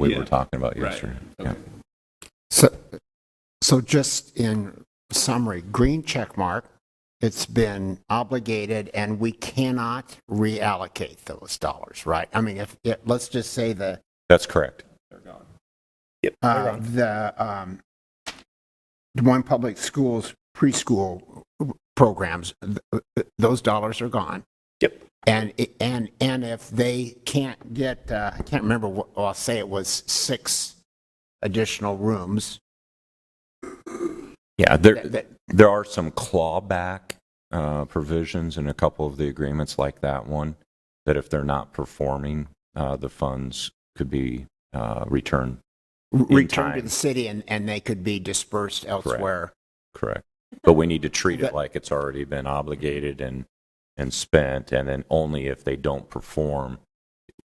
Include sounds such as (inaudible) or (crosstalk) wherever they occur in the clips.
we Yeah. were talking about Right. yesterday. Okay. So, so just in summary, green check mark, it's been obligated and we cannot reallocate those dollars, right? I mean, if, if- let's just say the, That's correct. uh, the, um, Des Moines Public Schools preschool programs, th- those dollars are gone. Yep. And, i- and, and if they can't get, uh, I can't remember, what- well, I'll say it was six additional rooms. Yeah, there, that- that- there are some clawback uh, provisions in a couple of the agreements like that one, that if they're not performing, uh, the funds could be uh, returned. in returned to time. the city and, and they could be dispersed elsewhere. Correct. But we need to treat it That- like it's already been obligated and, and spent, and then only if they don't perform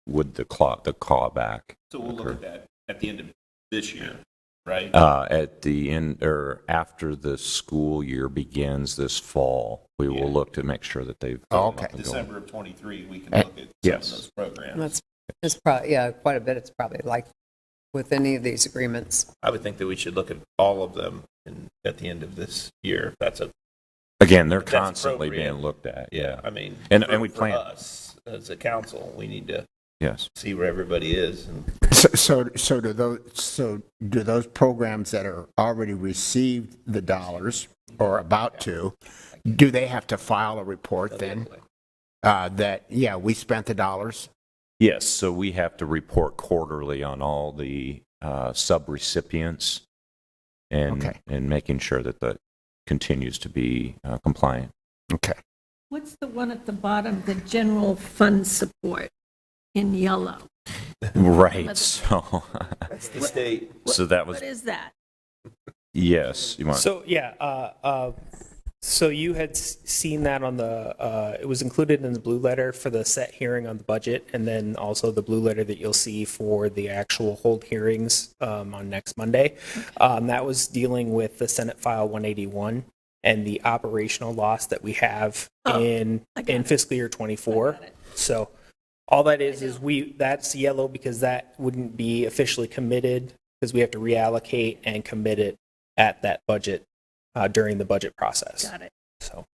would the claw, the clawback. So we'll look at that at the end of this year, right? Uh, At the end, or after the school year begins this fall, we Yeah. will look to make sure that they've. Oh, okay. December of '23, we can Uh, look at some of yes. those programs. That's, it's probably, yeah, quite a bit. It's probably like with any of these agreements. I would think that we should look at all of them in, at the end of this year. if That's a, Again, they're If that's constantly being appropriate. looked at. yeah, I mean. And- for- and we for plan. us, as a council, we need to Yes. see where everybody is and So, so, so do those, so do those programs that are already received the dollars or about to, do they have to file a report then? Uh, that, yeah, we spent the dollars? Yes, so we have to report quarterly on all the uh, subrecipients and, Okay. and making sure that that continues to be uh, compliant. Okay. What's the one at the bottom, the general fund support in yellow? (laughs) Right, so, (laughs) that's the state. so that was, What is that? yes, you want, So, yeah, uh, uh, so you had s- seen that on the, uh, it was included in the blue letter for the set hearing on the budget, and then also the blue letter that you'll see for the actual hold hearings um, on next Monday. Um, That was dealing with the Senate File 181 and the operational loss that we have Oh, in I got in it. fiscal year '24. So all that is, is we, that's yellow because that wouldn't be officially committed because we have to reallocate and commit it at that budget uh, during the budget process. Got it. So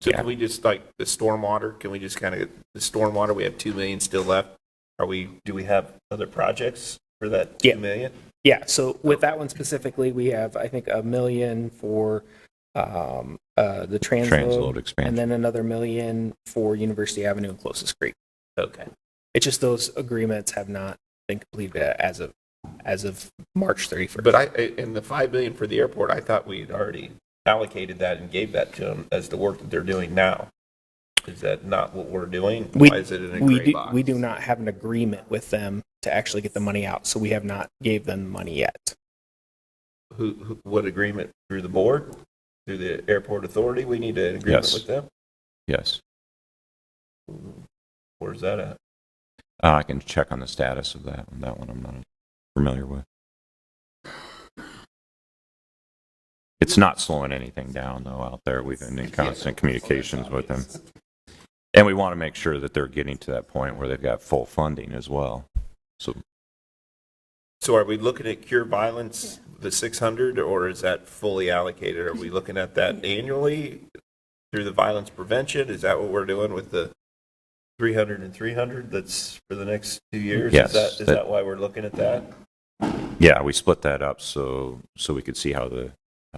So can we just, like, the stormwater, can we just kind of, the stormwater, we have 2 million still left. Are we, do we have other projects for that 2 Yeah. million? yeah, so with that one specifically, we have I think a million for um, uh, the transload transload, expansion. and then another million for University Avenue and Closest Creek. Okay. It's just those agreements have not been completed as of as of March 31st. But I, in the 5 million for the airport, I thought we had already allocated that and gave that to them as the work that they're doing now. Is that not what we're doing? We- Why is it in a we gray do, box? we do not have an agreement with them to actually get the money out, so we have not gave them money yet. Who, who, what agreement? Through the board? Through the airport authority? We need an agreement Yes. with them? Yes, Where's that at? Uh, I can check on the status of that, one. that one I'm not familiar with. It's not slowing anything down though out there. We've been in constant communications with them. And we want to make sure that they're getting to that point where they've got full funding as well. So So are we looking at cure violence, the 600, or is that fully allocated? Are we looking at that annually through the violence prevention? Is that what we're doing with the 300 and 300 that's for the next two years? Yes, Is that, is that- that why we're looking at that? Yeah, we split that up so, so we could see how the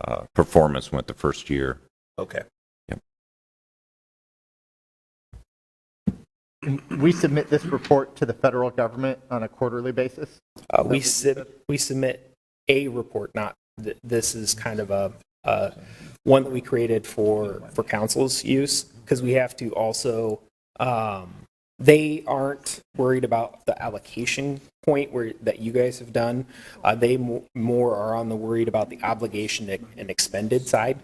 uh, performance went the first year. Okay. We submit this report to the federal government on a quarterly basis? Uh, we sub, we submit a report, not th- this is kind of a uh, one that we created for for council's use because we have to also um, they aren't worried about the allocation point where that you guys have done. Uh, they mo- more are on the worried about the obligation and expended side.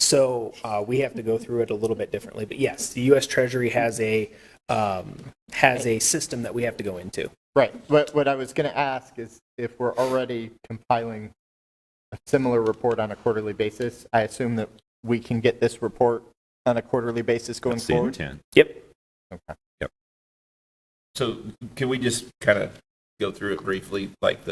So uh, we have to go through it a little bit differently. But yes, the U.S. Treasury has a um, has a system that we have to go into. Right. What, what I was going to ask is if we're already compiling a similar report on a quarterly basis, I assume that we can get this report on a quarterly basis going That's the forward? intent. Yep. So can we just kind of go through it briefly, like the